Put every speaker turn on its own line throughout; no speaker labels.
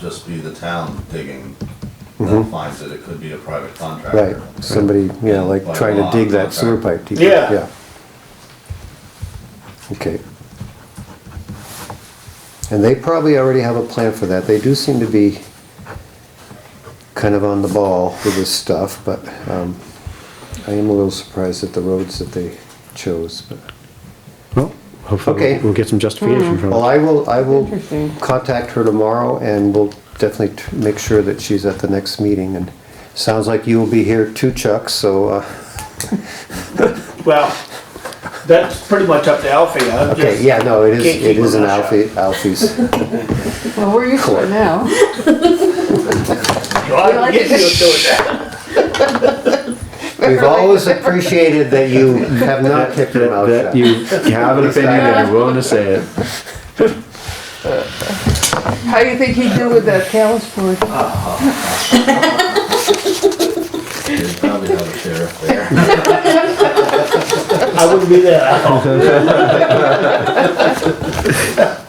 just be the town digging that finds it, it could be a private
Right,
contractor.
somebody, yeah, like
By
trying to
law,
dig that sewer
contract.
pipe deeper,
Yeah.
yeah. Okay. And they probably already have a plan for that, they do seem to be kind of on the ball with this stuff, but, um, I am a little surprised at the roads that they chose, but.
Well, hopefully
Okay. Mm-hmm.
we'll get some justification from
Well,
it.
I will, I will contact her tomorrow and we'll definitely t- make sure that she's at the next meeting and sounds like you will be here too, Chuck, so, uh,
Well, that's pretty much up to Alfie. I'm
Okay,
just-
yeah, no, it is,
Can't
it
keep
is
my
an
mouth
Alfie, Alfie's,
Well, we're used to
Court.
it now.
Well, I'm
We like
getting
it.
used to it now.
we've always appreciated that you have not kept your mouth
That
shut.
you have an opinion and you're willing to say it.
How do you think he'd do with that callus board?
They probably have a sheriff there.
I wouldn't be there. I don't.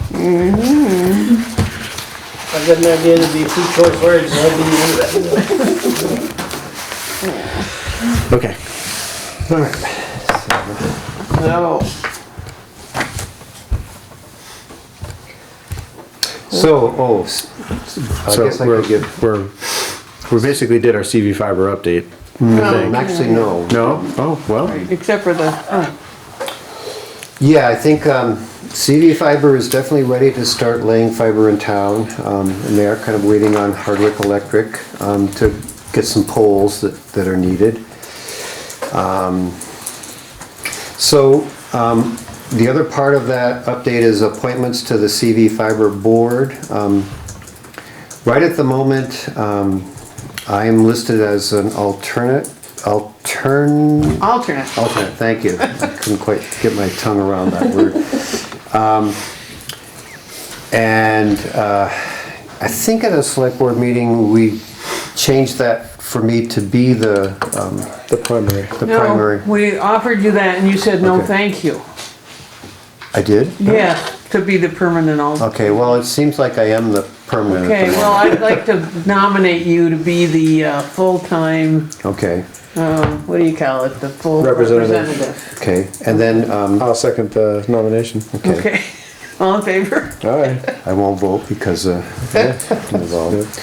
Mm-hmm.
I got an idea to be two choice words, and I'd be using that.
Okay.
No.
So, oh, s- I
So
guess I
we're,
could give,
we're, we basically did our CV fiber update.
no, actually, Oh, no.
No? Oh, well,
Except for the, oh,
Yeah, I think, um, CV Fiber is definitely ready to start laying fiber in town, um, and they are kind of waiting on Hardwick Electric, um, to get some poles that, that are needed. Um, So um, the other part of that update is appointments to the CV Fiber Board. Um, Right at the moment, um, I am listed as an alternate, altern,
alternate.
alternate, thank you. I Couldn't quite get my tongue around that word. Um, And uh, I think at a select board meeting, we changed that for me to be the, um,
the primary.
the
No,
primary.
We offered you that and you said, no,
Okay.
thank you.
I did?
Yeah, to be the permanent alternate.
Okay, well, it seems like I am the permanent
Okay,
at the
well,
moment.
I'd like to nominate you to be the uh, full-time,
Okay,
um, what do you call it, the full
Representative.
representative.
okay, and then, um,
I'll second the nomination.
okay,
Okay, all in favor?
All right.
I won't vote because, uh, I'm involved.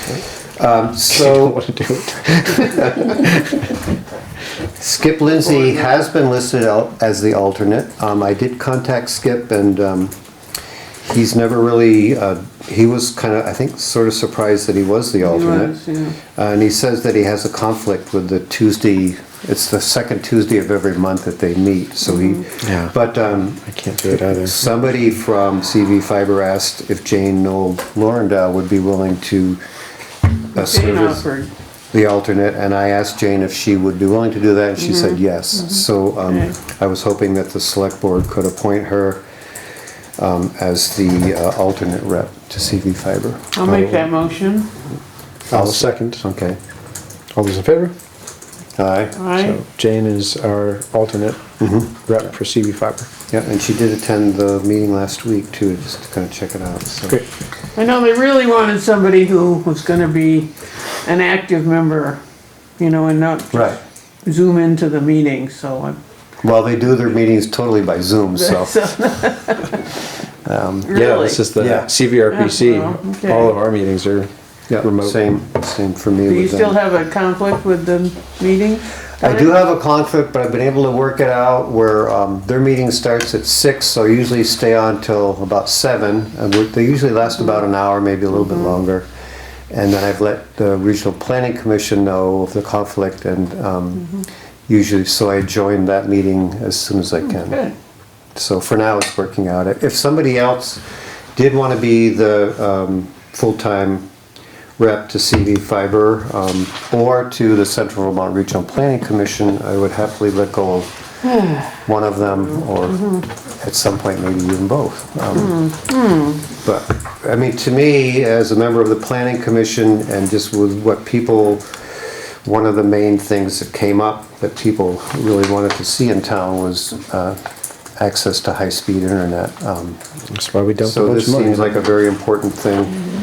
Um,
Don't
so
want to do it.
Skip Lindsay has been listed al- as the alternate. Um, I did contact Skip and, um, he's never really, uh, he was kind of, I think, sort of surprised that he was the alternate.
Right, yeah.
Uh, And he says that he has a conflict with the Tuesday, it's the second Tuesday of every month that they meet, so he,
Yeah.
but, um,
I can't do it either.
Somebody from CV Fiber asked if Jane Noel Laurendale would be willing to uh,
Jane
serve as
offered.
the alternate, and I asked Jane if she would be willing to do that, and she said yes. So
Mm-hmm. Okay.
um, I was hoping that the select board could appoint her um, as the uh, alternate rep to CV Fiber.
I'll make that motion.
I'll second.
Okay.
All those in favor?
Aye.
Aye.
So Jane is our alternate
Mm-hmm.
rep for CV fiber.
Yeah, and she did attend the meeting last week too, just to kind of check it out, so.
Great.
I know they really wanted somebody who was gonna be an active member, you know, and not
Right.
zoom into the meeting, so I'm.
Well, they do their meetings totally by Zoom, so. um,
Yeah,
Really?
this is the
Yeah.
Yeah, well,
CVRPC.
okay.
All of our meetings are
Yeah,
remote.
Same, same for me.
Do you
with them.
still have a conflict with the meeting?
um, I do have a conflict, but I've been able to work it out where um, their meeting starts at six, so I usually stay on till about seven. And we- They usually last about an hour, maybe a little bit longer. And then I've let the Regional Planning Commission know of the conflict and um, usually, so I join that meeting as soon as I can.
Good.
So for now, it's working out. If somebody else did want to be the um, full-time rep to CV Fiber um, or to the Central Vermont Regional Planning Commission, I would happily let go of one of them or at some point maybe even both. Um, But, I mean, to me, as a member of the Planning Commission and just with what people one of the main things that came up that people really wanted to see in town was uh, access to high-speed internet. Um,
That's why we dumped a
So
bunch
this
of money.
seems like a very important thing